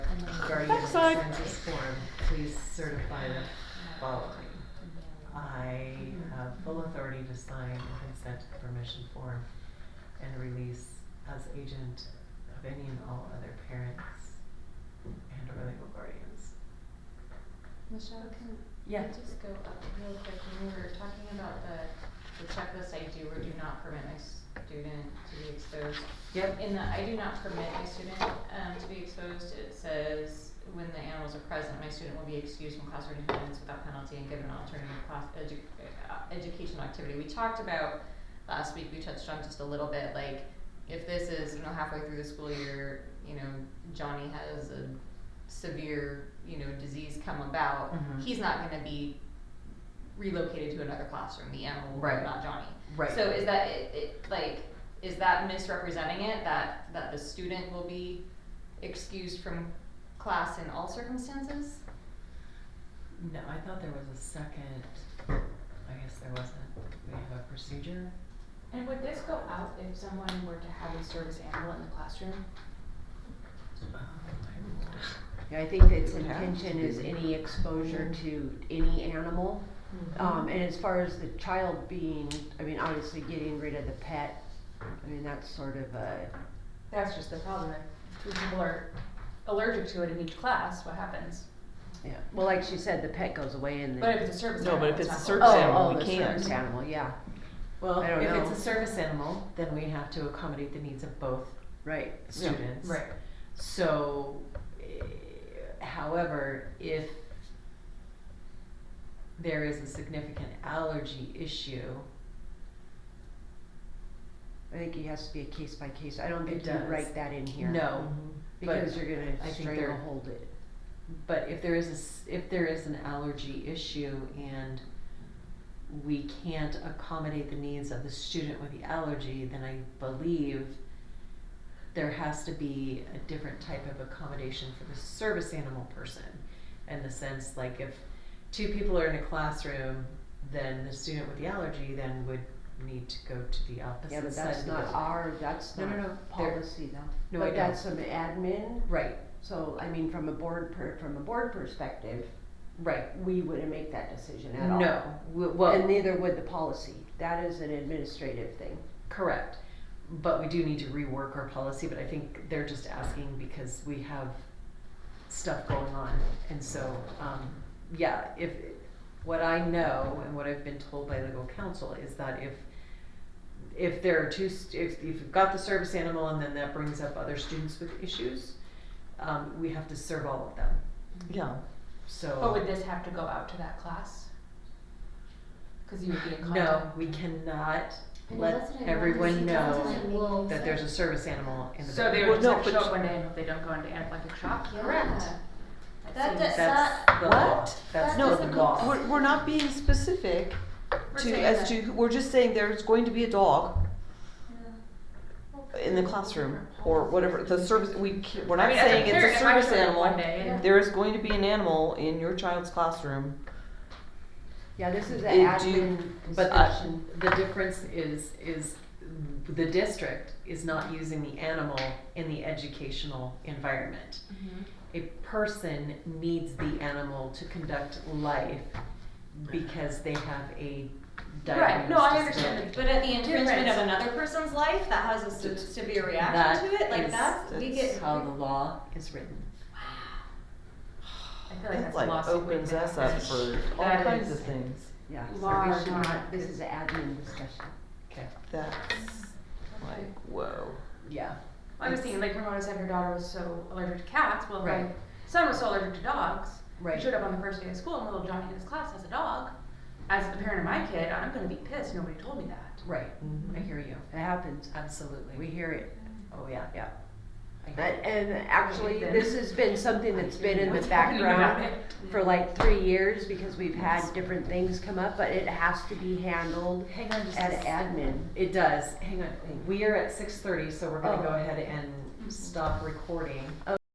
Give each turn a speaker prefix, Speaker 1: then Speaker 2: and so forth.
Speaker 1: outside.
Speaker 2: I sign this form, please certify the following. I have full authority to sign the consent permission form and release as agent of any and all other parents and or legal guardians.
Speaker 3: Michelle, can
Speaker 1: Yeah.
Speaker 3: I just go up real quick? When we were talking about the, the checklist, I do or do not permit my student to be exposed.
Speaker 2: Yep.
Speaker 3: In the I do not permit my student, um, to be exposed, it says, when the animals are present, my student will be excused from classroom attendance without penalty and given an alternative class, edu- uh, educational activity. We talked about, last week, we touched on just a little bit, like, if this is, you know, halfway through the school year, you know, Johnny has a severe, you know, disease come about,
Speaker 2: Mhm.
Speaker 3: he's not gonna be relocated to another classroom, the animal will,
Speaker 2: Right.
Speaker 3: not Johnny.
Speaker 2: Right.
Speaker 3: So is that, it, it, like, is that misrepresenting it, that, that the student will be excused from class in all circumstances?
Speaker 2: No, I thought there was a second, I guess there wasn't, we have a procedure?
Speaker 4: And would this go out if someone were to have a service animal in the classroom?
Speaker 2: Um, I
Speaker 5: Yeah, I think its
Speaker 1: It would have
Speaker 5: intention
Speaker 1: to
Speaker 5: is
Speaker 1: be. Mm-hmm.
Speaker 5: any exposure to any animal. Um, and as far as the child being, I mean, obviously getting rid of the pet, I mean, that's sort of a,
Speaker 4: That's just the problem. If two people are allergic to it in each class, what happens?
Speaker 5: yeah, well, like she said, the pet goes away and
Speaker 4: But if
Speaker 5: then.
Speaker 4: it's a service
Speaker 1: No,
Speaker 4: animal,
Speaker 1: but if
Speaker 4: it's
Speaker 1: it's a
Speaker 4: not
Speaker 1: service
Speaker 4: allowed.
Speaker 1: animal,
Speaker 5: Oh,
Speaker 1: we
Speaker 5: oh, the
Speaker 1: can't.
Speaker 5: service animal, yeah,
Speaker 2: Well,
Speaker 5: I don't
Speaker 2: if
Speaker 5: know.
Speaker 2: it's a service animal, then we have to accommodate the needs of both
Speaker 5: right,
Speaker 1: Yeah.
Speaker 2: students.
Speaker 4: Right.
Speaker 2: So, eh, however, if there is a significant allergy issue,
Speaker 5: I think it has to be a case by case, I don't
Speaker 2: It
Speaker 5: think you
Speaker 2: does.
Speaker 5: write that in here.
Speaker 2: no. but
Speaker 5: Because you're
Speaker 2: I
Speaker 5: gonna
Speaker 2: think they're-
Speaker 5: stranglehold it.
Speaker 2: But if there is a, s- if there is an allergy issue and we can't accommodate the needs of the student with the allergy, then I believe there has to be a different type of accommodation for the service animal person. In the sense, like if two people are in a classroom, then the student with the allergy then would need to go to the opposite
Speaker 5: Yeah, but
Speaker 2: side
Speaker 5: that's
Speaker 2: of the
Speaker 5: not
Speaker 2: building.
Speaker 5: our, that's
Speaker 2: No, no, no,
Speaker 5: not
Speaker 2: they're-
Speaker 5: policy though.
Speaker 2: No, I
Speaker 5: But
Speaker 2: know.
Speaker 5: that's some admin,
Speaker 2: Right,
Speaker 5: so, I mean, from a board per, from a board perspective,
Speaker 2: right.
Speaker 5: we wouldn't make that decision at all.
Speaker 2: No, w- well.
Speaker 5: And neither would the policy. That is an administrative thing.
Speaker 2: Correct. But we do need to rework our policy, but I think they're just asking because we have stuff going on. And so, um, yeah, if, what I know and what I've been told by legal counsel is that if, if there are two, st- if, if you've got the service animal and then that brings up other students with issues, um, we have to serve all of them.
Speaker 1: Yeah.
Speaker 2: So.
Speaker 4: But would this have to go out to that class? Cause you would be in contact.
Speaker 2: No, we cannot
Speaker 1: And
Speaker 2: let
Speaker 1: that's what I
Speaker 2: everyone
Speaker 1: wanted to
Speaker 2: know
Speaker 1: tell them.
Speaker 2: that there's a service animal in the
Speaker 4: So they
Speaker 2: building.
Speaker 1: Well, no,
Speaker 4: would just have to
Speaker 1: but
Speaker 4: show
Speaker 1: sh-
Speaker 4: up one day and if they don't go into anaphylactic shock,
Speaker 3: Yeah.
Speaker 4: correct.
Speaker 3: That, that,
Speaker 4: seems-
Speaker 2: That's
Speaker 3: that,
Speaker 2: the
Speaker 1: What?
Speaker 2: law. That's
Speaker 3: That
Speaker 1: No,
Speaker 2: the
Speaker 3: doesn't
Speaker 2: law.
Speaker 3: go-
Speaker 1: We're, we're not being specific
Speaker 3: We're
Speaker 1: to,
Speaker 3: saying
Speaker 1: as
Speaker 3: that-
Speaker 1: to, we're just saying there's going to be a dog in the classroom or whatever, the service, we, c- we're
Speaker 4: I
Speaker 1: not
Speaker 4: mean, as
Speaker 1: saying
Speaker 4: parent,
Speaker 1: it's a
Speaker 4: if I
Speaker 1: service
Speaker 4: showed up
Speaker 1: animal.
Speaker 4: One day and
Speaker 1: There is going to be an animal in your child's classroom.
Speaker 5: Yeah, this is an
Speaker 1: It do-
Speaker 5: admin
Speaker 2: But uh,
Speaker 5: discussion.
Speaker 2: the difference is, is the district is not using the animal in the educational environment.
Speaker 3: Mm-hmm.
Speaker 2: A person needs the animal to conduct life because they have a diagnosed
Speaker 3: Right, no, I
Speaker 2: disability.
Speaker 3: understand, it, but at the infringement
Speaker 4: Difference.
Speaker 3: of another person's life that has a se- severe reaction
Speaker 2: That
Speaker 3: to it, like
Speaker 2: is-
Speaker 3: that's, we get.
Speaker 2: How the law is written.
Speaker 4: I feel like
Speaker 1: That
Speaker 4: that's
Speaker 1: like
Speaker 4: lawsuit waiting
Speaker 1: opens
Speaker 4: to
Speaker 1: us
Speaker 4: happen.
Speaker 1: up for all
Speaker 4: That
Speaker 1: kinds
Speaker 4: is-
Speaker 1: of things.
Speaker 5: Yeah, so
Speaker 4: Law
Speaker 5: we
Speaker 4: or
Speaker 5: should
Speaker 4: not,
Speaker 5: not, this is an admin discussion.
Speaker 2: Okay,
Speaker 1: That's like, whoa.
Speaker 2: yeah.
Speaker 4: I was thinking, like Ramona said, her daughter was so allergic to cats. Well,
Speaker 2: Right.
Speaker 4: my son was so allergic to dogs. He
Speaker 2: Right.
Speaker 4: showed up on the first day of school, and little Johnny in his class has a dog. As the parent of my kid, I'm going to be pissed. Nobody told me that.
Speaker 2: Right,
Speaker 1: Mhm.
Speaker 2: I hear you,
Speaker 5: It happens.
Speaker 2: absolutely.
Speaker 5: We hear it,
Speaker 2: Oh, yeah.
Speaker 5: yeah.
Speaker 2: I hear
Speaker 5: That- And actually, this has been something that's been in the
Speaker 4: What's happening
Speaker 5: background
Speaker 4: about it?
Speaker 5: for like three years because we've had different things come up, but it has to be handled
Speaker 2: you. Hang on just a
Speaker 5: at
Speaker 2: second.
Speaker 5: admin.
Speaker 2: It does. Hang on. We are at six thirty, so we're gonna go ahead and stop recording.